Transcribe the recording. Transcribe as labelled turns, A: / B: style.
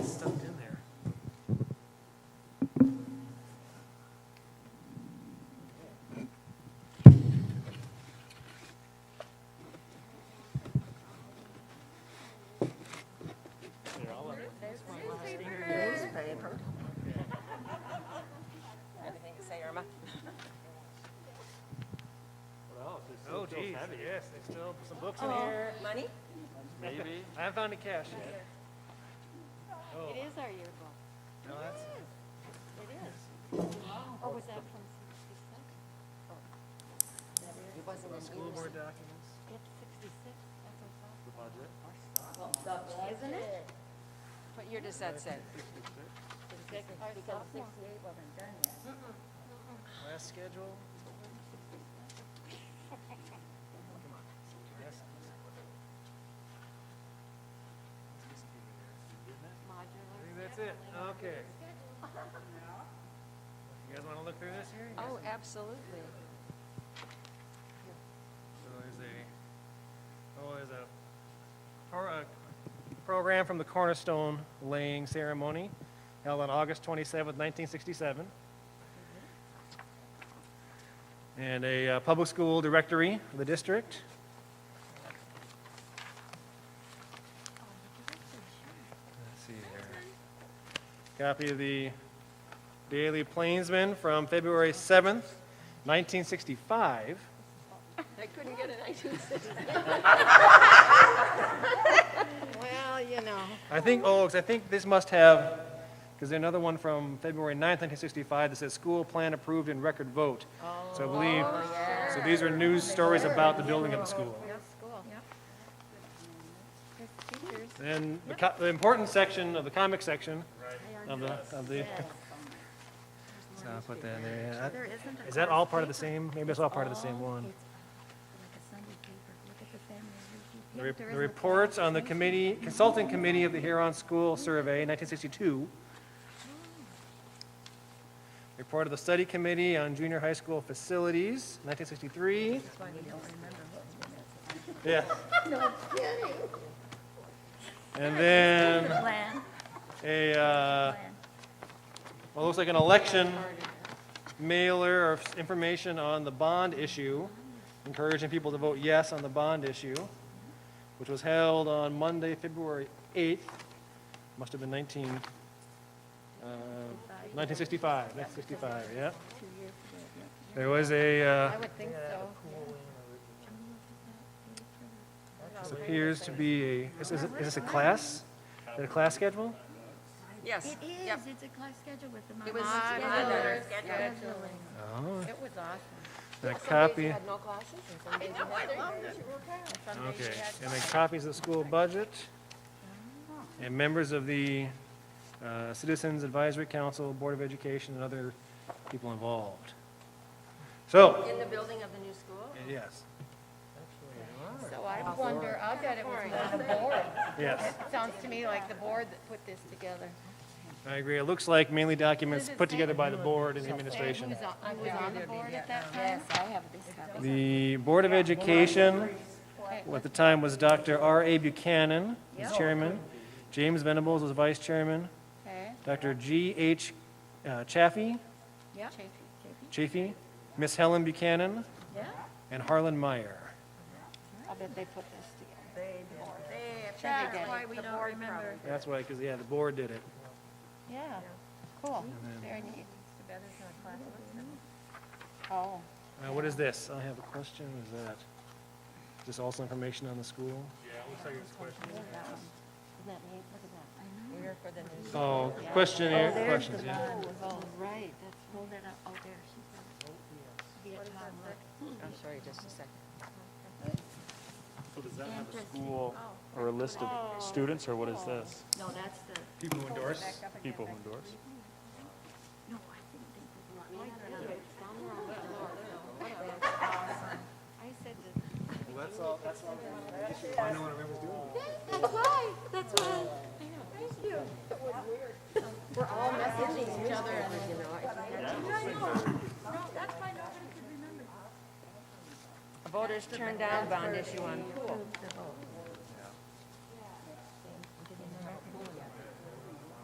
A: Oh, Next job, put some books in here,
B: Oh, money?
A: maybe. I haven't found any cash yet. Oh,
C: It is our yearbook.
A: No, that's,
C: It is. Or was that from sixty-six?
B: It wasn't in
A: school board documents,
C: It's sixty-six, that's what's up.
A: the budget.
B: Isn't it?
D: What year does that say?
C: Our
B: Because
C: sophomore.
B: sixty-eight wasn't done yet.
A: Last schedule. Come on. Yes. I
C: Modular.
A: think that's it. Okay. You guys wanna look through this here? You guys-
D: Oh, absolutely.
A: So there's a, oh, there's a, pro- a program from the Cornerstone laying ceremony held on August 27th, 1967. And a uh, public school directory of the district. Let's see here. Copy of the Daily Plainsman from February 7th, 1965.
D: I couldn't get a 1960.
C: Well, you know.
A: I think, oh, 'cause I think this must have, because there's another one from February 9th, 1965, that says school plan approved in record vote. So I believe, so these are news stories about the building of the school.
C: School. There's teachers.
A: Then the co- the important section of the comic section of the, of the. So I'll put that in there, yeah.
B: There isn't a.
A: Is that all part of the same? Maybe it's all part of the same one.
B: Like a Sunday paper, look at the family review.
A: The
B: Yep,
A: re-
B: there
A: the
B: isn't a-
A: reports on the committee, consulting committee of the Huron School Survey, 1962. Report of the study committee on junior high school facilities, 1963.
B: That's why we don't remember what's in it.
A: Yeah.
B: No kidding.
A: And then
B: Plan,
A: a, uh,
B: plan.
A: well, it looks like an election mailer of information on the bond issue, encouraging people to vote yes on the bond issue, which was held on Monday, February 8th. Must have been uh, 19, uh, 1965, 1965, yeah. There was a, uh,
C: I would think so.
A: this appears to be a, is is it- is this a class? Is it a class schedule?
D: Yes.
B: It
D: Yep.
B: is, it's a class schedule with the.
D: It was
B: mom-
D: on
B: Modular
D: our schedule.
B: scheduling.
A: Oh,
C: It was awesome.
A: a copy.
D: Had no classes?
A: Okay, and then copies of the school budget, and members of the uh, Citizens Advisory Council, Board of Education, and other people involved. So,
D: In the building of the new school?
A: yes,
C: So I wonder, I bet it was not the board.
A: yes,
C: Sounds to me like the board that put this together.
A: I agree. It looks like mainly documents put together by the board and the administration.
C: Who's on, who was on the board at that time?
B: Yes, I have this copy.
A: The Board of Education, who at the time was Dr. R.A. Buchanan, was chairman. James Venables was vice chairman.
C: Okay,
A: Dr. G.H. uh, Chaffee,
C: yeah.
A: Chafee, Miss Helen Buchanan, and Harlan Meyer.
C: I bet they put this together.
B: That's why we don't remember.
A: That's why, because, yeah, the board did it.
C: Yeah, cool, very neat. Oh,
A: Uh, What is this? I have a question, is that, is this also information on the school?
C: isn't that neat? Look at that.
A: Oh, questionnaire, questions, yeah.
C: Oh, right, that's
B: Hold it up, oh, there, she's got it.
D: I'm sorry, just a second.
E: So does that have a school or a list of students, or what is this?
B: No, that's the,
A: People who endorse?
E: People who endorse?
B: no, I didn't think it was.
C: I said to
A: That's all, that's all. I know what everyone's doing.
C: That's why, that's why.
D: Voters turned down bond issue on pool.